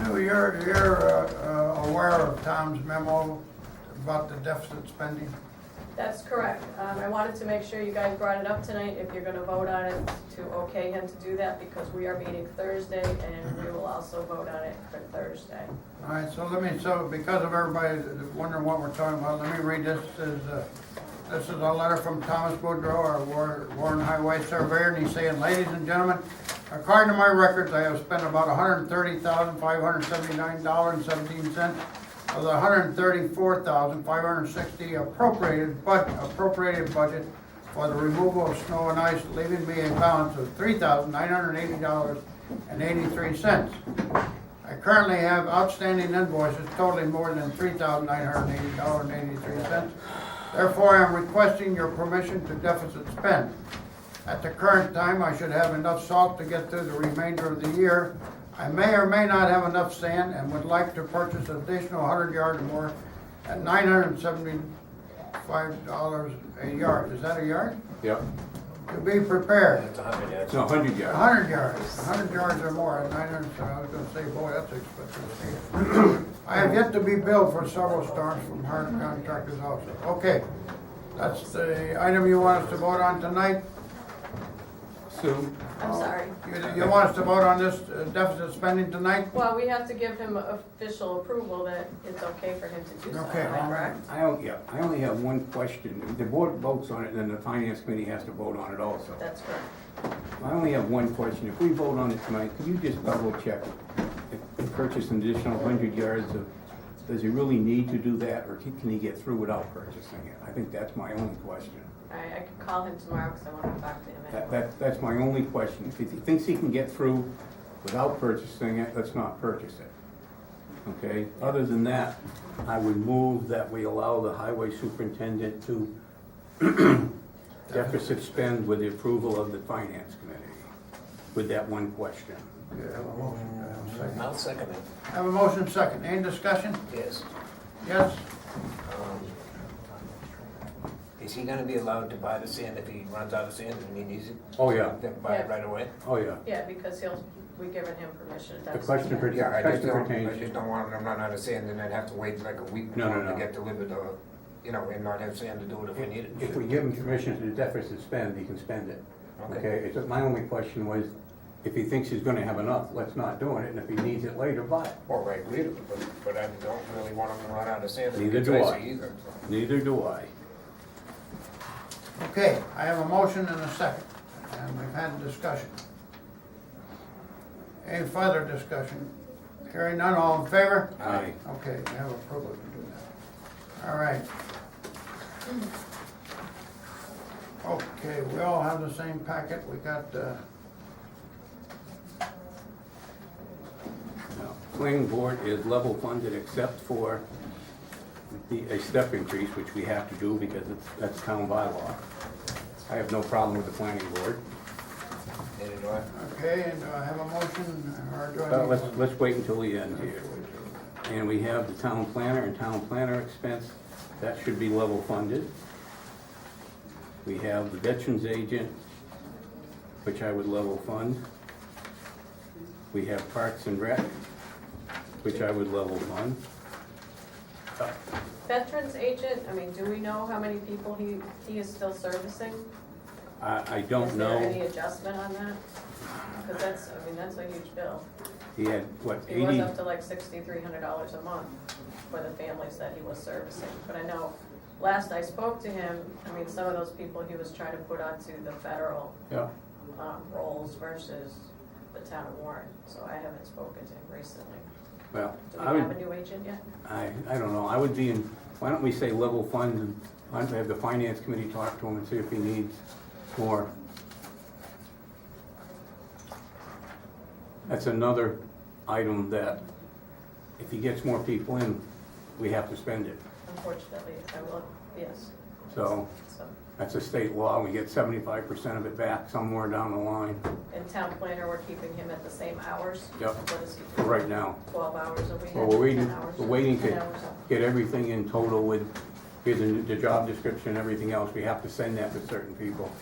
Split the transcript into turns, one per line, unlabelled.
you're, you're uh, uh, aware of Tom's memo about the deficit spending?
That's correct. Um, I wanted to make sure you guys brought it up tonight, if you're gonna vote on it, to okay him to do that, because we are meeting Thursday, and we will also vote on it for Thursday.
All right, so let me, so because of everybody that wondering what we're talking about, let me read this, This is, uh, this is a letter from Thomas Boudreau, our War- Warren Highway Surveyor, and he's saying, ladies and gentlemen, according to my records, I have spent about hundred and thirty thousand, five hundred and seventy-nine dollars and seventeen cents of the hundred and thirty-four thousand, five hundred and sixty appropriated, but appropriated budget for the removal of snow and ice, leaving me a balance of three thousand, nine hundred and eighty dollars and eighty-three cents. I currently have outstanding invoices totaling more than three thousand nine hundred eighty dollars and eighty-three cents. Therefore, I am requesting your permission to deficit spend. At the current time, I should have enough salt to get through the remainder of the year. I may or may not have enough sand and would like to purchase additional hundred yards or more at nine hundred and seventy-five dollars a yard. Is that a yard?
Yep.
To be prepared.
It's a hundred yards.
No, hundred
A
yards.
hundred yards, a hundred yards or more, and I didn't, I was gonna say, boy, that's expensive. I have yet to be billed for several storms from hard contractors also. Okay, that's the item you want us to vote on tonight?
Sue,
I'm sorry.
You, you want us to vote on this uh, deficit spending tonight?
Well, we have to give him official approval that it's okay for him to do something,
Okay,
um,
all right.
correct?
I don't, yeah, I only have one question. If The board votes on it, then the finance committee has to vote on it also.
That's correct.
I only have one question. If we vote on it tonight, could you just double check? If we Purchase an additional hundred yards of, does he really need to do that, or can can he get through without purchasing it? I think that's my only question.
All right, I can call him tomorrow, because I want to talk to him
That,
anyway.
that, that's my only question. If he thinks he can get through without purchasing it, let's not purchase it. Okay, other than that, I would move that we allow the highway superintendent to deficit spend with the approval of the finance committee, with that one question.
Okay, I have a motion, I have a second.
I'll second it,
I Have a motion second, any discussion?
yes.
Yes?
Um, Is he gonna be allowed to buy the sand if he runs out of sand and he needs it,
Oh, yeah,
then buy it
Yeah.
right away?
oh, yeah.
Yeah, because he'll, we've given him permission, that's.
The question per-
Yeah, I just
question
don't, I
pertains,
just don't want him to run out of sand and then have to wait like a week
No, no,
before to
no.
get delivered or, you know, and not have sand to do it if we need it.
if we give him permission to deficit spend, he can spend it. Okay, it's, my only question was, if he thinks he's gonna have enough, let's not do it, and if he needs it later, buy it.
Or I agree to it, but, but I don't really want him to run out of sand and
Neither
get
do I.
dicey either. so.
Neither do I.
Okay, I have a motion and a second, and we've had a discussion. Any further discussion? Hearing none, all in favor?
Aye.
Okay, we have approval to do that. All right. Okay, we all have the same packet, we got, uh,
Now, Planning board is level funded except for the, a step increase, which we have to do because it's, that's town bylaw. I have no problem with the planning board,
Neither do I.
okay, and I have a motion, or do I?
but
need
Uh, let's,
one?
let's wait until the end here. And we have the town planner and town planner expense, that should be level funded. We have the veterans agent, which I would level fund. We have parks and rec, which I would level fund.
Veterans agent, I mean, do we know how many people he, he is still servicing?
I, I don't
Is there any
know,
adjustment on that? Because that's, I mean, that's a huge bill.
he had, what,
He was
eighty?
up to like sixty-three hundred dollars a month for the families that he was servicing. But I know, last I spoke to him, I mean, some of those people he was trying to put onto the federal,
Yeah,
um, rolls versus the town of Warren. So I haven't spoken to him recently.
well,
Do
I
we have
would,
a new agent yet?
I, I don't know, I would be in, why don't we say level funds and why don't we have the finance committee talk to him and see if he needs more? That's another item that if he gets more people in, we have to spend it.
Unfortunately, I will, yes,
So
so.
that's a state law, we get seventy-five percent of it back somewhere down the line
And town planner, we're keeping him at the same hours?
Yep.
What is he?
for right now.
Twelve hours a week?
Well, we're waiting,
10 hours?
we're waiting
10
to
hours
get everything in total with, here's the, the job description, everything else, we have to send that to certain people.